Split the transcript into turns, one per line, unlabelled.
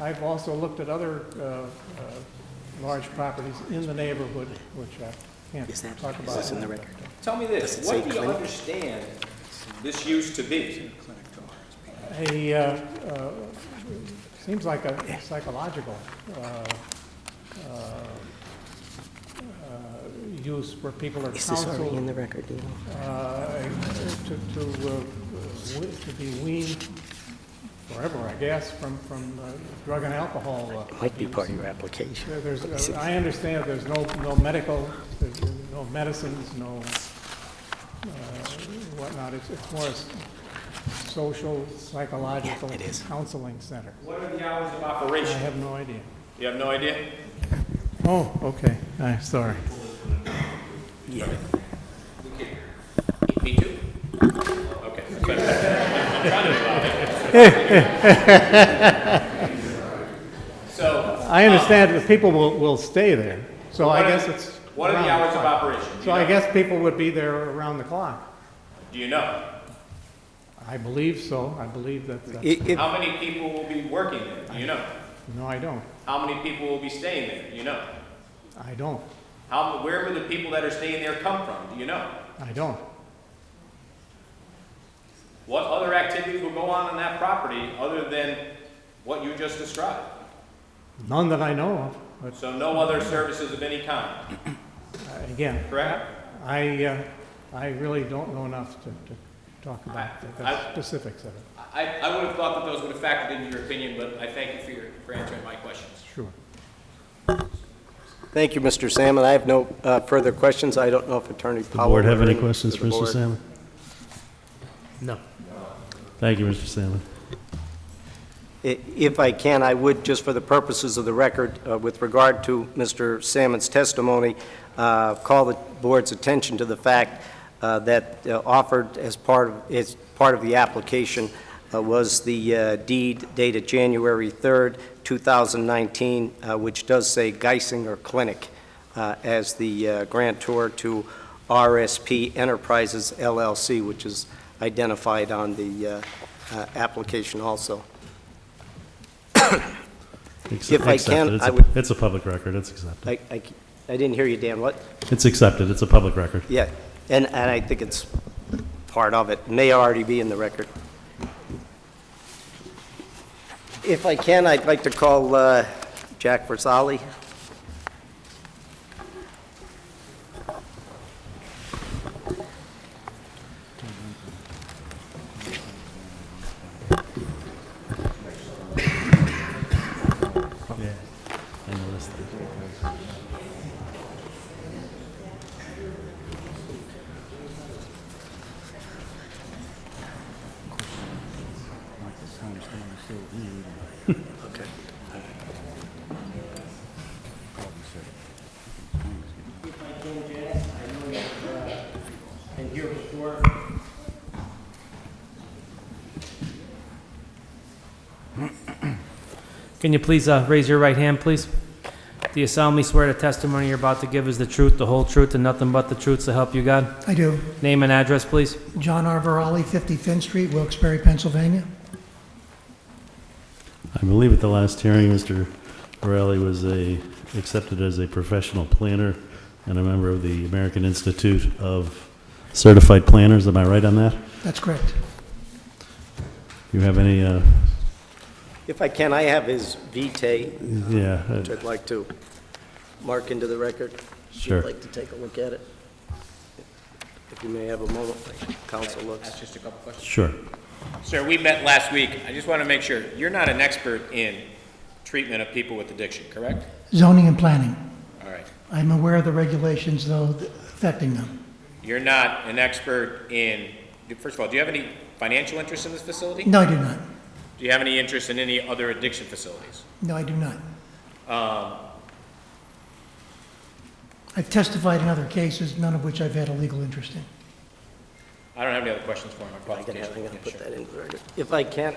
I've also looked at other uh, uh, large properties in the neighborhood, which I
Is that,
can't talk
is
about.
this in the record?
Tell me
Does
this,
it
what
say
do you
clinic?
understand this used to be?
A, uh, uh, seems like a psychological uh, uh, uh, use where people are
Is this already in
counseled
the record, do you know?
uh, to, to, uh, we- to be weaned forever, I guess, from, from uh, drug and alcohol. uh,
Might be part of
use.
your application.
There- There's,
Is
uh,
it-
I understand there's no, no medical, there's no medicines, no uh, whatnot. It's, it's more a s- social, psychological
Yeah, it is.
counseling center.
What are the hours of
I
operation?
have no idea.
You have no idea?
Oh, okay, I'm sorry.
Yeah.
Me too? Okay. that's what I thought. I'm trying to divide it. So, uh,
I understand that people will, will stay there, so I
What are-
guess it's.
what are the
around
hours of
clock.
operation? Do
So
you
I
know?
guess people would be there around the clock.
Do you know?
I believe so, I believe that, that-
It, it,
How many people will be working there? Do you know?
no, I don't,
How many people will be staying there? Do you know?
I don't,
How, where will the people that are staying there come from? Do you know?
I don't.
What other activities will go on on that property other than what you just described?
None that I know of, but
So no other services of any kind,
uh, again,
correct?
I, uh, I really don't know enough to, to talk about the-
I-
the specifics of it,
I, I would have thought that those would have factored into your opinion, but I thank you for your, for answering my questions.
sure.
Thank you, Mr. Salmon. I have no uh, further questions. I don't know if Attorney
The
Powell...
board have any
or-
questions for
the
Mr.
board.
Salmon?
no.
Thank you, Mr. Salmon.
I- If I can, I would, just for the purposes of the record, uh, with regard to Mr. Salmon's testimony, uh, call the board's attention to the fact uh, that uh, offered as part of, as part of the application uh, was the uh, deed dated January 3rd, 2019, uh, which does say Geisinger Clinic uh, as the uh, grantor to RSP Enterprises LLC, which is identified on the uh, uh, application also.
Ex-
If I
accepted.
can,
It's
I
a-
would-
It's a public record, it's accepted.
I, I, I didn't hear you, Dan, what?
It's accepted, it's a public record.
Yeah, and, and I think it's part of it, may already be in the record. If I can, I'd like to call uh, Jack Versali.
Yeah. I noticed that.
Can you please uh, raise your right hand, please? Do you solemnly swear the testimony you're about to give is the truth, the whole truth, and nothing but the truth to help you God?
I do.
Name and address, please.
John Arvarelli, 50 Finn Street, Wilkes-Barre, Pennsylvania.
I believe at the last hearing, Mr. Borelli was a, accepted as a professional planner and a member of the American Institute of Certified Planners, am I right on that?
That's correct.
You have any, uh,
If I can, I have his vitae,
yeah, uh,
which I'd like to mark into the record. If
Sure.
you'd like to take a look at it. If you may have a moment, council looks.
Just a couple questions.
sure.
Sir, we met last week. I just want to make sure, you're not an expert in treatment of people with addiction, correct?
Zoning and planning.
All right.
I'm aware of the regulations, though, affecting them.
You're not an expert in, first of all, do you have any financial interest in this facility?
No, I do not.
Do you have any interest in any other addiction facilities?
No, I do not. I've testified in other cases, none of which I've had a legal interest in.
I don't have any other questions for him.
I gotta- I gotta put that into the record. If I can,